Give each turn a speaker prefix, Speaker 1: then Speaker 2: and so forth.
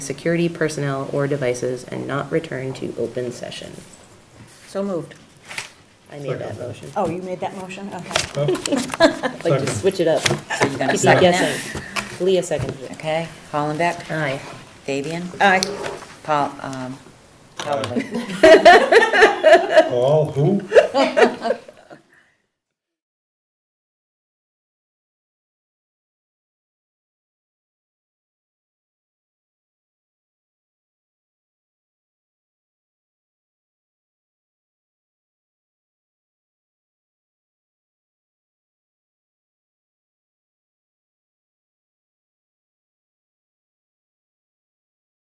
Speaker 1: security personnel or devices and not return to open session.
Speaker 2: So moved.
Speaker 1: I made that motion.
Speaker 2: Oh, you made that motion? Okay.
Speaker 1: Like, just switch it up.
Speaker 3: You got a
Speaker 1: He's not
Speaker 3: second now?
Speaker 1: guessing. Leah seconded it.
Speaker 3: Okay, Hollenbeck,
Speaker 1: Aye.
Speaker 3: Fabian,
Speaker 2: Aye.
Speaker 3: Paul, um, Howard.
Speaker 4: All who?